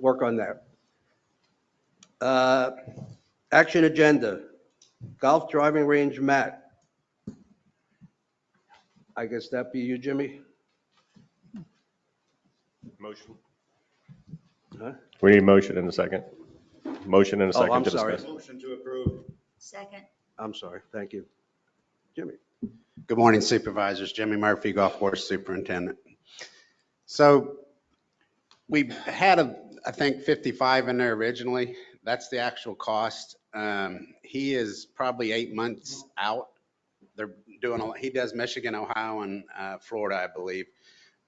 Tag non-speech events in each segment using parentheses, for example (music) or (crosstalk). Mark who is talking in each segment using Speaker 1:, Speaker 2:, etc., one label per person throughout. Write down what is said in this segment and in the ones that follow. Speaker 1: work on that. Uh, Action agenda, golf driving range mat. I guess that'd be you, Jimmy?
Speaker 2: Motion.
Speaker 3: We need a motion in a second. Motion in a
Speaker 1: Oh, I'm
Speaker 3: second to
Speaker 1: sorry.
Speaker 3: discuss.
Speaker 2: Motion to approve.
Speaker 4: Second,
Speaker 1: I'm sorry, thank you. Jimmy?
Speaker 5: Good morning Supervisors, Jimmy Murphy, Golf Course Superintendent. So we had, a, I think, 55 in there originally. That's the actual cost. Um, He is probably eight months out. They're doing, a he does Michigan, Ohio, and uh, Florida, I believe.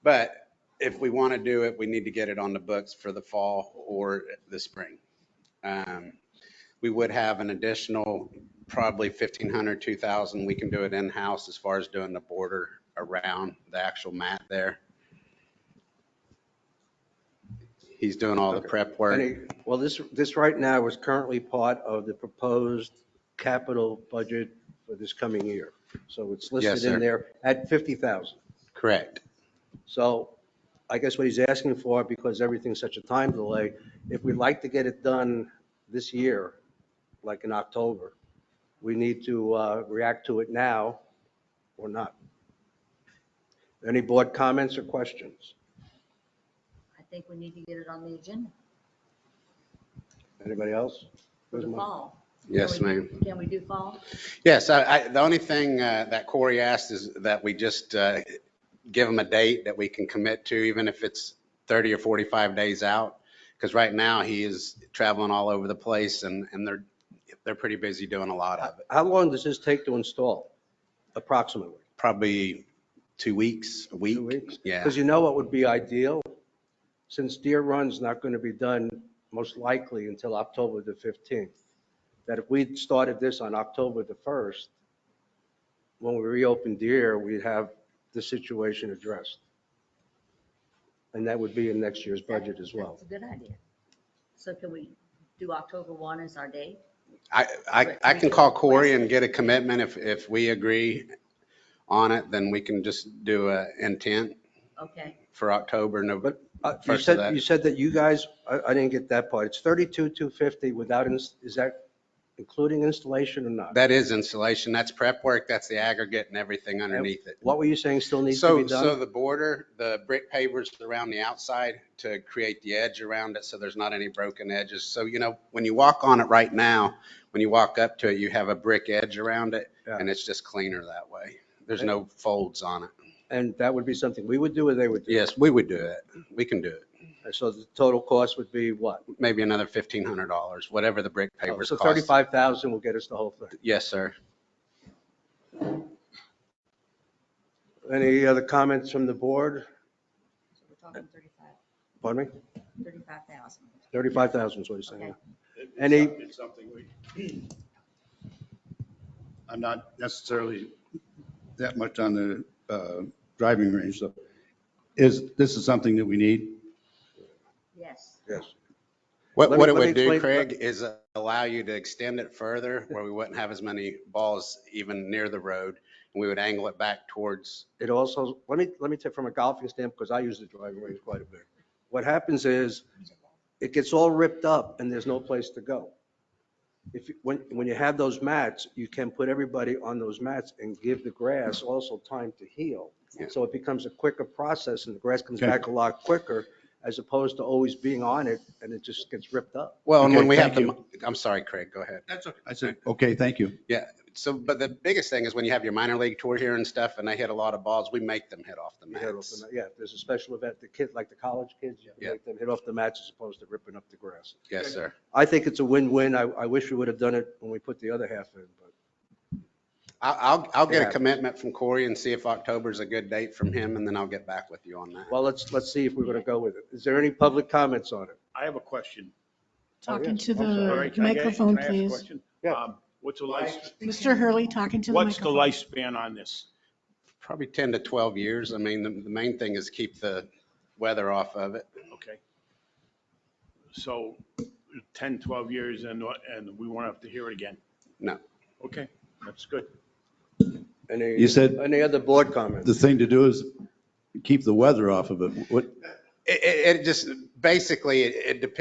Speaker 5: But if we want to do it, we need to get it on the books for the fall or the spring. Um, We would have an additional probably 1,500, 2,000. We can do it in-house as far as doing the border around the actual mat there. He's doing all the prep work.
Speaker 1: Any- Well, this, this right now is currently part of the proposed capital budget for this coming year. So it's listed
Speaker 5: Yes,
Speaker 1: in
Speaker 5: sir.
Speaker 1: there at 50,000.
Speaker 5: Correct.
Speaker 1: So I guess what he's asking for, because everything's such a time delay, if we'd like to get it done this year, like in October, we need to uh, react to it now or not. Any board comments or questions?
Speaker 4: I think we need to get it on the agenda
Speaker 1: Anybody else?
Speaker 4: for the fall.
Speaker 5: Yes,
Speaker 4: Can we-
Speaker 5: ma'am.
Speaker 4: Can we do fall?
Speaker 5: Yes, I, I- the only thing uh, that Corey asked is that we just uh, give him a date that we can commit to, even if it's 30 or 45 days out. Because right now, he is traveling all over the place and, and they're, they're pretty busy doing a lot of it.
Speaker 1: How long does this take to install approximately?
Speaker 5: Probably two weeks, a week.
Speaker 1: Two weeks?
Speaker 5: Yeah,
Speaker 1: Because you know what would be ideal? Since Deer Run's not going to be done most likely until October the 15th, that if we'd started this on October the 1st, when we reopen Deer, we'd have the situation addressed. And that would be in next year's budget as well.
Speaker 4: That's a good idea. So can we do October 1 as our date?
Speaker 5: I, I, I can call Corey and get a commitment. If, if we agree on it, then we can just do a intent
Speaker 4: Okay,
Speaker 5: for October, November.
Speaker 1: But uh, you
Speaker 5: First of
Speaker 1: said,
Speaker 5: that.
Speaker 1: you said that you guys, I I didn't get that part. It's 32,250 without, ins- is that including installation or not?
Speaker 5: That is installation, that's prep work, that's the aggregate and everything underneath it.
Speaker 1: What were you saying still needs to be
Speaker 5: So,
Speaker 1: done?
Speaker 5: so the border, the brick pavers around the outside to create the edge around it, so there's not any broken edges. So, you know, when you walk on it right now, when you walk up to it, you have a brick edge around it, and it's just cleaner that way. There's no folds on it.
Speaker 1: And that would be something we would do or they would do?
Speaker 5: Yes, we would do it, we can do it.
Speaker 1: And So the total cost would be what?
Speaker 5: Maybe another fifteen hundred dollars, whatever the brick pavers
Speaker 1: Oh, So
Speaker 5: cost.
Speaker 1: 35,000 will get us the whole thing.
Speaker 5: Yes, sir.
Speaker 1: Any other comments from the board?
Speaker 4: so we're talking 35,
Speaker 1: Pardon me?
Speaker 4: 35,000.
Speaker 1: 35,000 is what he's
Speaker 4: Okay.
Speaker 1: saying. Any-
Speaker 2: It's something we, (clears throat) I'm not necessarily that much on the uh, driving range, so is, this is something that we need?
Speaker 4: Yes,
Speaker 1: Yes.
Speaker 5: What,
Speaker 1: Let me-
Speaker 5: what it
Speaker 1: let me
Speaker 5: would do,
Speaker 1: explain-
Speaker 5: Craig, is uh, allow you to extend it further where we wouldn't have as many balls even near the road. And we would angle it back towards,
Speaker 1: It also, let me, let me take from a golfing standpoint, because I use the driving range quite a bit. What happens is it gets all ripped up and there's no place to go. If, you- when, when you have those mats, you can put everybody on those mats and give the grass also time to heal.
Speaker 5: Yeah.
Speaker 1: So it becomes a quicker process and the grass comes
Speaker 2: Okay.
Speaker 1: back a lot quicker as opposed to always being on it and it just gets ripped up.
Speaker 5: well, and when
Speaker 2: Okay,
Speaker 5: we have
Speaker 2: thank
Speaker 5: the, I'm sorry, Craig, go ahead.
Speaker 2: That's okay. I said, okay, thank you.
Speaker 5: So, but the biggest thing is when you have your minor league tour here and stuff and they hit a lot of balls, we make them hit off the
Speaker 1: You hit off the
Speaker 5: mats.
Speaker 1: mat. Yeah, if there's a special event, the kids, like the college kids, you
Speaker 5: Yeah.
Speaker 1: make them hit off the mats as opposed to ripping up the grass.
Speaker 5: Yes, sir.
Speaker 1: I think it's a win-win. I, I wish we would have done it when we put the other half in, but
Speaker 5: I- I'll, I'll get
Speaker 1: Yeah.
Speaker 5: a commitment from Corey and see if October's a good date from him and then I'll get back with you on that.
Speaker 1: Well, let's, let's see if we're going to go with it. Is there any public comments on it?
Speaker 6: I have a question.
Speaker 7: Talking
Speaker 2: Oh,
Speaker 1: yes.
Speaker 7: to
Speaker 1: I'm sorry.
Speaker 2: All right,
Speaker 7: the
Speaker 2: can I-
Speaker 7: microphone,
Speaker 2: can I ask a
Speaker 7: please.
Speaker 2: question?
Speaker 1: Yeah.
Speaker 2: Um, What's the life,
Speaker 7: Mr. Hurley, talking to the
Speaker 6: What's the
Speaker 7: microphone.
Speaker 6: lifespan on this?
Speaker 5: Probably 10 to 12 years. I mean, the, the main thing is keep the weather off of it.
Speaker 6: Okay. So 10, 12 years and, and we won't have to hear it again.
Speaker 5: No.
Speaker 6: Okay, that's good.
Speaker 1: Any-
Speaker 2: You said-
Speaker 1: Any other board comments?
Speaker 2: the thing to do is keep the weather off of it. What,
Speaker 5: It, it, it just, basically, it, it depends